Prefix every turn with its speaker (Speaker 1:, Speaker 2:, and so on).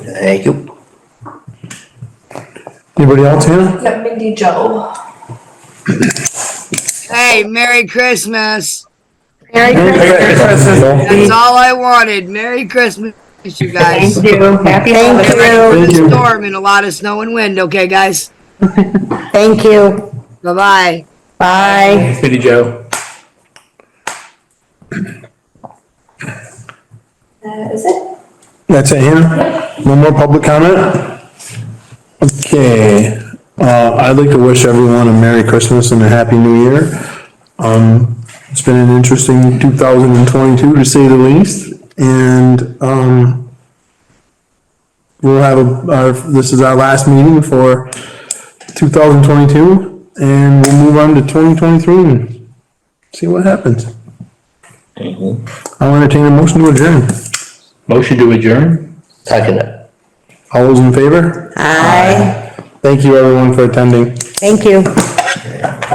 Speaker 1: Thank you.
Speaker 2: Anybody else, Hannah?
Speaker 3: Yeah, Mindy Joe.
Speaker 4: Hey, Merry Christmas.
Speaker 5: Merry
Speaker 2: Merry Christmas.
Speaker 4: That's all I wanted. Merry Christmas, you guys.
Speaker 5: Thank you. Happy
Speaker 4: Get
Speaker 5: holidays.
Speaker 4: ready
Speaker 2: Thank
Speaker 4: for
Speaker 2: you.
Speaker 4: the storm and a lot of snow and wind, okay, guys?
Speaker 5: Thank you.
Speaker 4: Bye-bye.
Speaker 5: Bye.
Speaker 2: Smitty Joe.
Speaker 3: That Uh, is it.
Speaker 2: That's it, Hannah? No more public comment? Okay, uh, I'd like to wish everyone a Merry Christmas and a Happy New Year. Um, it's been an interesting two thousand and twenty-two to say the least, and, um, we'll have, a- our, this is our last meeting for two thousand twenty-two, and we'll move on to twenty twenty-three and see what happens. I'll entertain a motion to adjourn.
Speaker 6: Motion to adjourn?
Speaker 1: Second it.
Speaker 2: All those in favor?
Speaker 5: Bye.
Speaker 2: Thank you everyone for attending.
Speaker 5: Thank you.